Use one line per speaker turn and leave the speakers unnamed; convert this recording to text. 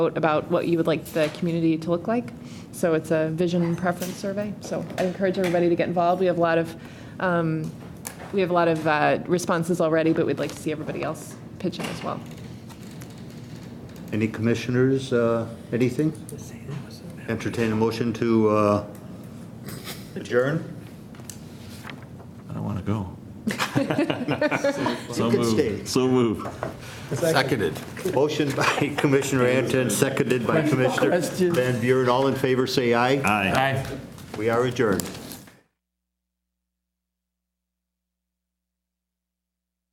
vote about what you would like the community to look like. So it's a vision preference survey. So I encourage everybody to get involved. We have a lot of, um, we have a lot of uh, responses already, but we'd like to see everybody else pitch in as well.
Any commissioners, uh, anything? Entertain a motion to uh, adjourn?
I don't want to go.
You
So
could stay.
moved. So moved.
Seconded.
Motion by Commissioner Anton, seconded by Commissioner Van Buren. All in favor, say aye.
Aye.
Aye.
We are adjourned.